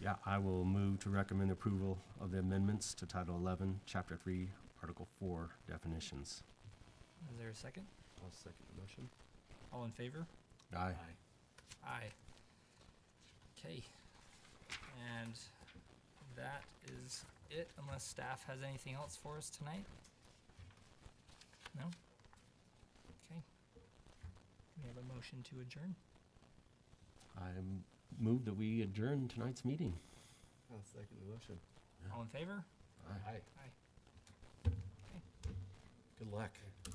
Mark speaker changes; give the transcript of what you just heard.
Speaker 1: Yeah, I will move to recommend approval of the amendments to Title 11, Chapter 3, Article 4 definitions.
Speaker 2: Is there a second?
Speaker 3: I'll second the motion.
Speaker 2: All in favor?
Speaker 1: Aye.
Speaker 2: Aye. Okay. And that is it, unless staff has anything else for us tonight? No? Okay. We have a motion to adjourn.
Speaker 1: I move that we adjourn tonight's meeting.
Speaker 3: I'll second the motion.
Speaker 2: All in favor?
Speaker 1: Aye.
Speaker 2: Aye.
Speaker 3: Aye. Good luck.